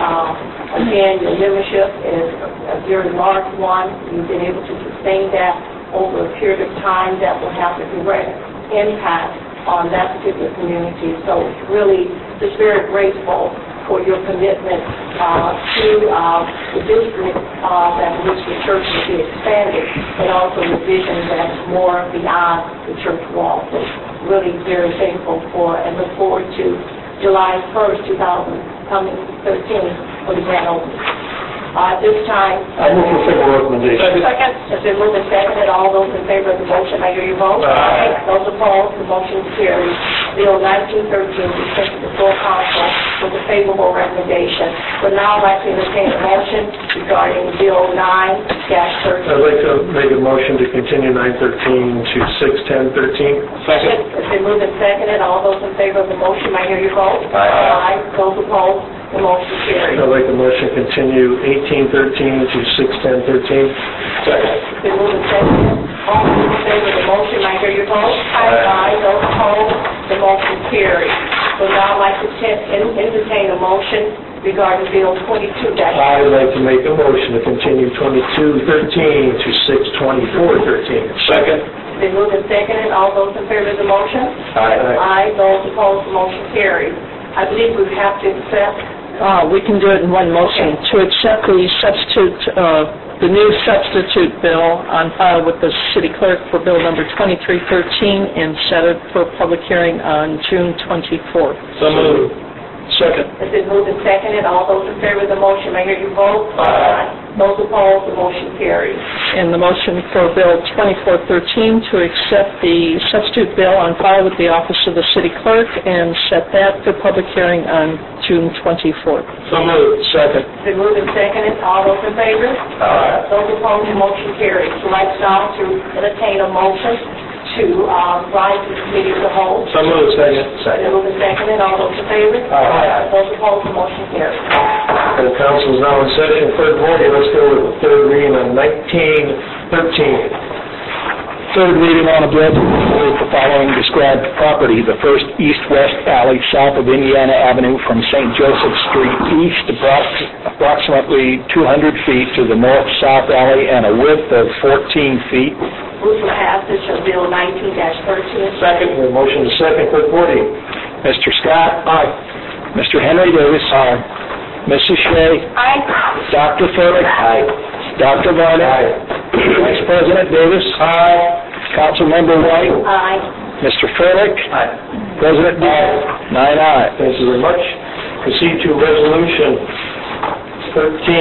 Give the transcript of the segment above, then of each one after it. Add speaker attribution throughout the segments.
Speaker 1: Um, Again, your membership is a very large one. You've been able to sustain that over a period of time that will have a direct impact on that particular community. So it's really, just very grateful for your commitment uh, to uh, the district uh, that which the church will be expanded, and also the vision that's more beyond the church walls. So Really very thankful for and look forward to July 1st, 2000, coming 13, for the grand opening. Uh, At this time...
Speaker 2: I move to approve the recommendation.
Speaker 1: Second. It's been moved and seconded. All those in favor of the motion, I hear you vote.
Speaker 2: Aye.
Speaker 1: Those opposed, the motion carries. Bill 1913 is sent to the full council with a favorable recommendation. But now I'd like to entertain a motion regarding Bill 9-13.
Speaker 2: I'd like to make a motion to continue 913 to 61013.
Speaker 1: It's been moved and seconded. All those in favor of the motion, I hear you vote. Aye. Those opposed, the motion carries.
Speaker 2: I'd like a motion to continue 1813 to 61013. Second.
Speaker 1: It's been moved and seconded. All those in favor of the motion, I hear your vote. Aye. Those opposed, the motion carries. So now I'd like to te- en- entertain a motion regarding Bill 22 dash...
Speaker 2: I'd like to make a motion to continue 2213 to 62413. Second.
Speaker 1: It's been moved and seconded. All those in favor of the motion?
Speaker 2: Aye.
Speaker 1: Aye. Those opposed, the motion carries. I believe we have to accept,
Speaker 3: Uh, we can do it in one motion, to accept the substitute, uh, the new substitute bill on file with the city clerk for bill number 2313 and set it for public hearing on June 24th.
Speaker 2: So moved. Second.
Speaker 1: it's been moved and seconded. All those in favor of the motion, I hear you vote.
Speaker 2: Aye.
Speaker 1: Those opposed, the motion carries.
Speaker 3: And the motion for bill 2413 to accept the substitute bill on file with the office of the city clerk and set that for public hearing on June 24th.
Speaker 2: So moved. Second.
Speaker 1: It's been moved and seconded. All those in favor?
Speaker 2: Aye.
Speaker 1: Those opposed, the motion carries. I'd like now to entertain a motion to uh, rise to the committee of the whole.
Speaker 2: So moved. Second.
Speaker 1: Been moved and seconded. All those in favor?
Speaker 2: Aye.
Speaker 1: Those opposed, the motion carries.
Speaker 2: The council is now in session, third reading, let's go with the third reading on 1913.
Speaker 4: Third reading on a bill to approve the following described property, the first east-west alley south of Indiana Avenue from St. Joseph Street east approx- approximately 200 feet to the north-south alley and a width of 14 feet.
Speaker 1: Move for passage of Bill 19-13.
Speaker 2: Second, we have motion to second, clerk Woody.
Speaker 4: Mr. Scott? Aye. Mr. Henry Davis? Aye. Mrs. Shea?
Speaker 1: Aye.
Speaker 4: Dr. Furlick? Aye. Dr. Vaughn? Vice President Davis? Aye. Councilmember White?
Speaker 1: Aye.
Speaker 4: Mr. Furlick?
Speaker 2: Aye.
Speaker 4: President Dyer? Nine ayes.
Speaker 2: Thank you very much. Proceed to resolution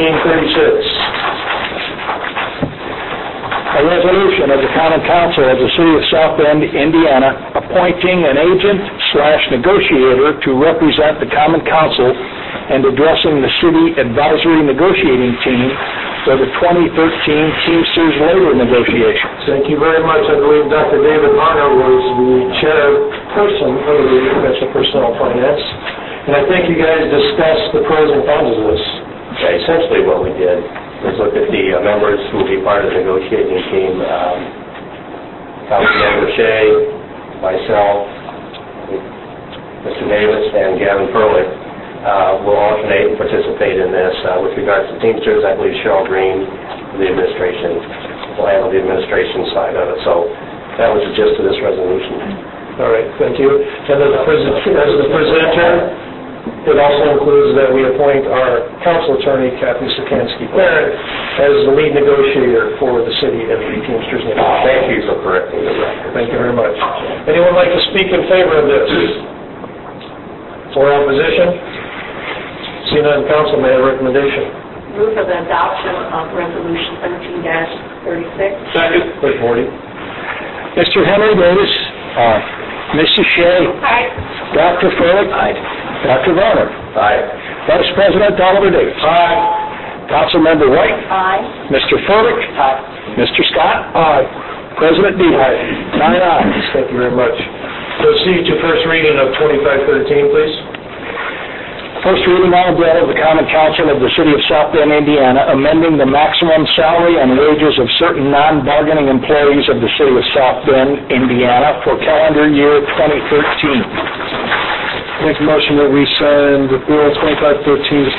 Speaker 2: 1336.
Speaker 4: A resolution of the common council of the city of South Bend, Indiana, appointing an agent slash negotiator to represent the common council and addressing the city advisory negotiating team for the 2013 Teamsters labor negotiations.
Speaker 2: Thank you very much. I believe Dr. David Harner was the chairperson of the Commission on Personnel Finance, and I think you guys discussed the pros and cons of this.
Speaker 5: Yeah, Essentially, what we did was look at the uh, members who will be part of the negotiating team, um, Councilmember Shea, myself, Mr. Davis, and Gavin Furley uh, will alternate and participate in this. Uh, With regards to Teamsters, I believe Cheryl Green, from the administration, will handle the administration side of it. So that was the gist of this resolution.
Speaker 2: All right, thank you. And as the presen- as the presenter, it also includes that we appoint our council attorney, Kathy Sikansky Barrett, as the lead negotiator for the city and the Teamsters Union.
Speaker 5: Thank you for correcting the record.
Speaker 2: Thank you very much. Anyone like to speak in favor of this? Or opposition? Seeing none, council, may I have a recommendation?
Speaker 1: Move for the adoption of Resolution 13-36.
Speaker 2: Second. Clerk Woody.
Speaker 4: Mr. Henry Davis. Aye. Mrs. Shea.
Speaker 1: Aye.
Speaker 4: Dr. Furlick. Aye. Dr. Varner.
Speaker 5: Aye.
Speaker 4: Vice President Oliver Davis. Aye. Councilmember White.
Speaker 1: Aye.
Speaker 4: Mr. Furlick. Aye. Mr. Scott. Aye. President Dyer. Nine ayes.
Speaker 2: Uh, Thank you very much. Proceed to first reading of 2513, please.
Speaker 4: First reading on a bill of the common council of the city of South Bend, Indiana, amending the maximum salary and wages of certain non-bargaining employees of the city of South Bend, Indiana for calendar year 2013. Make motion that we send Bill 2513 to